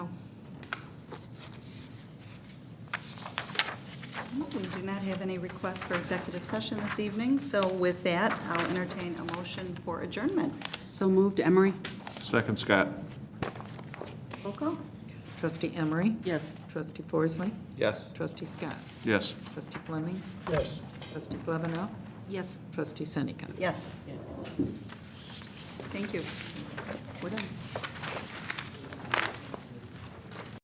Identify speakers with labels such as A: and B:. A: do not have any requests for executive session this evening, so with that, I'll entertain a motion for adjournment.
B: So moved, Emery?
C: Second, Scott.
A: Roll call?
D: Trustee Emery?
B: Yes.
D: Trustee Forsley?
C: Yes.
D: Trustee Scott?
C: Yes.
D: Trustee Fleming?
E: Yes.
D: Trustee Flevenow?
B: Yes.
D: Trustee Seneca?
A: Yes. Thank you. We're done.